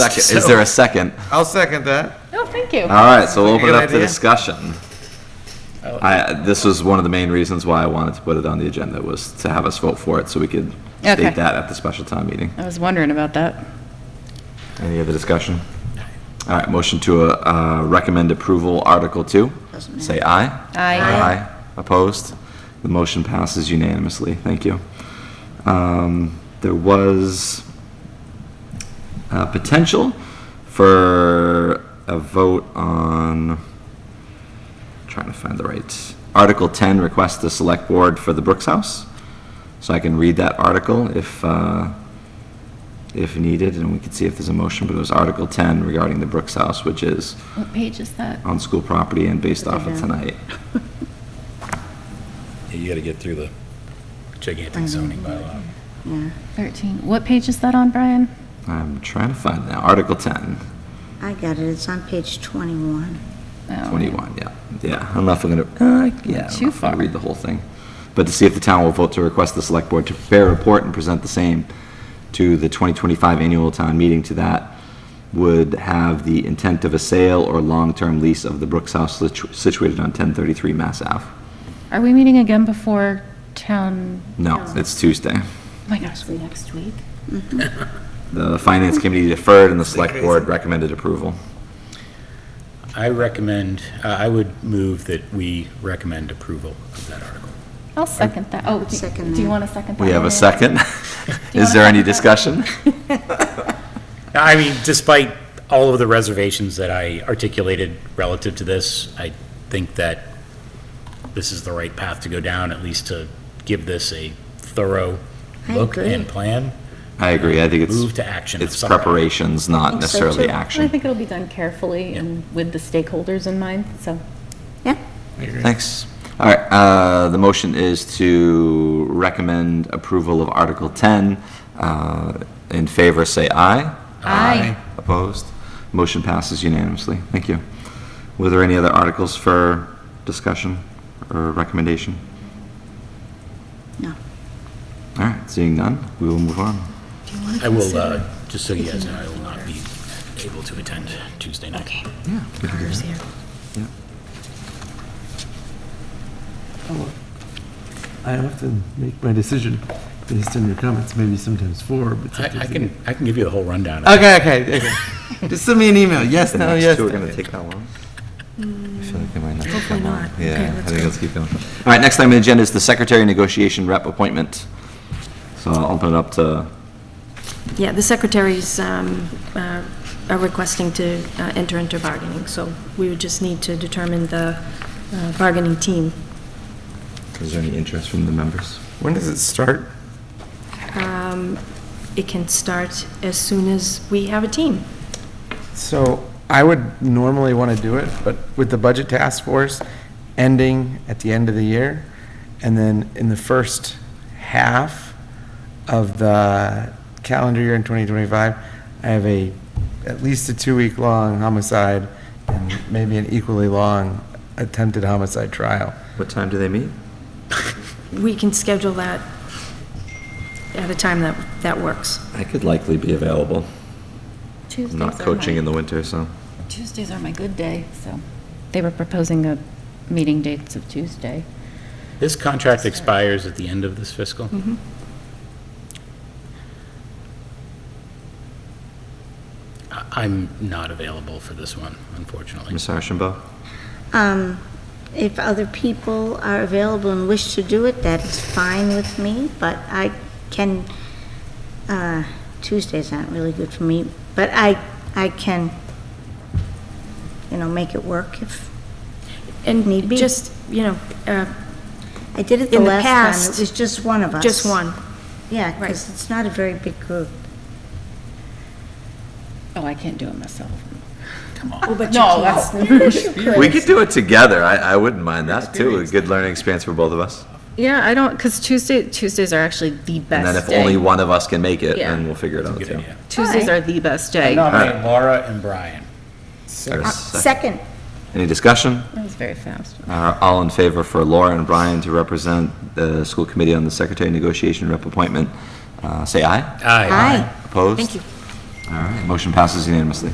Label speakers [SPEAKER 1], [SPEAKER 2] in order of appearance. [SPEAKER 1] Second, is there a second?
[SPEAKER 2] I'll second that.
[SPEAKER 3] No, Oh, thank you.
[SPEAKER 1] All right, so we'll open it
[SPEAKER 2] Good
[SPEAKER 1] up to
[SPEAKER 2] idea. Oh.
[SPEAKER 1] discussion. I, this was one of the main reasons why I wanted to put it on the agenda, was to have us vote for it, so we could
[SPEAKER 3] Okay.
[SPEAKER 1] state that at the special town meeting.
[SPEAKER 3] I was wondering about that.
[SPEAKER 1] Any other discussion? All right, motion to uh, uh, recommend approval, Article 2. Say aye.
[SPEAKER 3] Aye. Aye.
[SPEAKER 1] Aye. Opposed? The motion passes unanimously. Thank you. Um, There was uh, potential for a vote on, trying to find the right, Article 10, request the select board for the Brooks House. So I can read that article if, uh, if needed, and we can see if there's a motion, but it was Article 10 regarding the Brooks House, which is
[SPEAKER 3] What page is that?
[SPEAKER 1] on school property and based off of tonight.
[SPEAKER 4] Yeah, You gotta get through the
[SPEAKER 5] Mm-hmm.
[SPEAKER 4] gigantic zoning bylaw.
[SPEAKER 3] 13. What page is that on, Brian?
[SPEAKER 1] I'm trying to find now, Article 10,
[SPEAKER 5] I got it, it's on page 21.
[SPEAKER 3] Oh.
[SPEAKER 1] 21, yeah, yeah, I don't know if I'm gonna, uh, yeah, I don't
[SPEAKER 3] Too
[SPEAKER 1] know if I'm
[SPEAKER 3] far.
[SPEAKER 1] gonna read the whole thing. But to see if the town will vote to request the select board to prepare a report and present the same to the 2025 annual town meeting to that would have the intent of a sale or long-term lease of the Brooks House situ- situated on 1033 Mass Ave.
[SPEAKER 3] Are we meeting again before town?
[SPEAKER 1] No, it's Tuesday.
[SPEAKER 3] Oh my gosh, we next week?
[SPEAKER 1] The finance committee deferred and the select board recommended approval.
[SPEAKER 4] I recommend, uh, I would move that we recommend approval of that article.
[SPEAKER 3] I'll second that. Oh, do-
[SPEAKER 5] Second
[SPEAKER 3] do you
[SPEAKER 5] that.
[SPEAKER 3] want a second?
[SPEAKER 1] We
[SPEAKER 3] that
[SPEAKER 1] have
[SPEAKER 3] one,
[SPEAKER 1] a second.
[SPEAKER 3] Eric? Do you
[SPEAKER 1] Is
[SPEAKER 3] wanna
[SPEAKER 1] there any
[SPEAKER 3] second that?
[SPEAKER 1] discussion?
[SPEAKER 4] I mean, despite all of the reservations that I articulated relative to this, I think that this is the right path to go down, at least to give this a thorough
[SPEAKER 5] I
[SPEAKER 4] look
[SPEAKER 5] agree.
[SPEAKER 4] and plan.
[SPEAKER 1] I agree, I think it's.
[SPEAKER 4] Move to action of
[SPEAKER 1] It's
[SPEAKER 4] some kind.
[SPEAKER 1] preparations, not
[SPEAKER 5] think so,
[SPEAKER 1] necessarily
[SPEAKER 5] too.
[SPEAKER 3] I
[SPEAKER 1] action.
[SPEAKER 3] think it'll be done carefully and with the stakeholders in mind, so.
[SPEAKER 5] Yeah,
[SPEAKER 1] Thanks. All right, uh, the motion is to recommend approval of Article 10. Uh, In favor, say aye.
[SPEAKER 3] Aye.
[SPEAKER 1] Opposed? Motion passes unanimously. Thank you. Were there any other articles for discussion or recommendation?
[SPEAKER 5] no.
[SPEAKER 1] All right, seeing none, we will move on.
[SPEAKER 4] I will, uh, just so you guys know, I will not be able to attend Tuesday night. Okay.
[SPEAKER 1] Yeah.
[SPEAKER 6] I often make my decision based on your comments, maybe sometimes four, but
[SPEAKER 4] I, I
[SPEAKER 6] sometimes.
[SPEAKER 4] can, I can give you the whole rundown.
[SPEAKER 6] Okay, okay, okay. Just send me an email, yes,
[SPEAKER 1] The
[SPEAKER 6] no,
[SPEAKER 1] next
[SPEAKER 6] yes.
[SPEAKER 1] two are
[SPEAKER 6] no,
[SPEAKER 1] going to
[SPEAKER 6] yes.
[SPEAKER 1] take that long? I feel like they might not take
[SPEAKER 5] Mm. Hopefully
[SPEAKER 1] that long.
[SPEAKER 5] not. Okay,
[SPEAKER 1] Yeah, I
[SPEAKER 5] let's
[SPEAKER 1] think
[SPEAKER 5] go.
[SPEAKER 1] let's keep going. All right, next item on the agenda is the secretary negotiation rep appointment. So I'll open it up to,
[SPEAKER 7] Yeah, the secretaries um, uh, are requesting to uh, enter into bargaining, so we would just need to determine the uh, bargaining team.
[SPEAKER 1] is there any interest from the members?
[SPEAKER 2] When does it start?
[SPEAKER 7] Um, It can start as soon as we have a team.
[SPEAKER 6] So I would normally want to do it, but with the budget task force ending at the end of the year, and then in the first half of the calendar year in 2025, I have a, at least a two-week-long homicide, and maybe an equally long attempted homicide trial.
[SPEAKER 1] What time do they meet?
[SPEAKER 7] We can schedule that at a time that, that works.
[SPEAKER 1] I could likely be available.
[SPEAKER 3] Tuesdays
[SPEAKER 1] I'm
[SPEAKER 3] are
[SPEAKER 1] not
[SPEAKER 3] my-
[SPEAKER 1] coaching in the winter, so.
[SPEAKER 3] Tuesdays are my good day, so. They were proposing a meeting dates of Tuesday.
[SPEAKER 4] This contract expires at the end of this fiscal? I- I'm not available for this one, unfortunately.
[SPEAKER 1] Ms. Ashenbaugh?
[SPEAKER 5] Um, If other people are available and wish to do it, that is fine with me, but I can, uh, Tuesdays aren't really good for me, but I, I can, you know, make it work if Need
[SPEAKER 7] And
[SPEAKER 5] be.
[SPEAKER 7] just, you know, uh,
[SPEAKER 5] I did it the
[SPEAKER 7] In the
[SPEAKER 5] last time. It
[SPEAKER 7] past,
[SPEAKER 5] was just one of us.
[SPEAKER 7] just one.
[SPEAKER 5] Yeah,
[SPEAKER 7] Right.
[SPEAKER 5] because it's not a very big group.
[SPEAKER 3] Oh, I can't do it myself.
[SPEAKER 4] Come on.
[SPEAKER 7] Oh, but you
[SPEAKER 3] No,
[SPEAKER 7] can't.
[SPEAKER 3] that's.
[SPEAKER 1] We could do it together. I, I wouldn't mind that, too. A good learning experience for both of us.
[SPEAKER 3] Yeah, I don't, because Tuesday, Tuesdays are actually the
[SPEAKER 1] And
[SPEAKER 3] best
[SPEAKER 1] then if
[SPEAKER 3] day.
[SPEAKER 1] only one of us can make it,
[SPEAKER 3] Yeah.
[SPEAKER 1] then we'll figure it out,
[SPEAKER 4] Good
[SPEAKER 1] too.
[SPEAKER 4] idea.
[SPEAKER 3] Tuesdays are the best day. That
[SPEAKER 4] Nominate Laura and Brian.
[SPEAKER 1] There's
[SPEAKER 7] Uh,
[SPEAKER 1] a second.
[SPEAKER 5] Second,
[SPEAKER 1] Any discussion?
[SPEAKER 3] was very fast.
[SPEAKER 1] Uh, All in favor for Laura and Brian to represent the school committee on the secretary negotiation rep appointment, uh, say aye.
[SPEAKER 4] Aye.
[SPEAKER 5] aye.
[SPEAKER 1] Opposed?
[SPEAKER 7] Thank you.
[SPEAKER 1] All right, motion passes unanimously.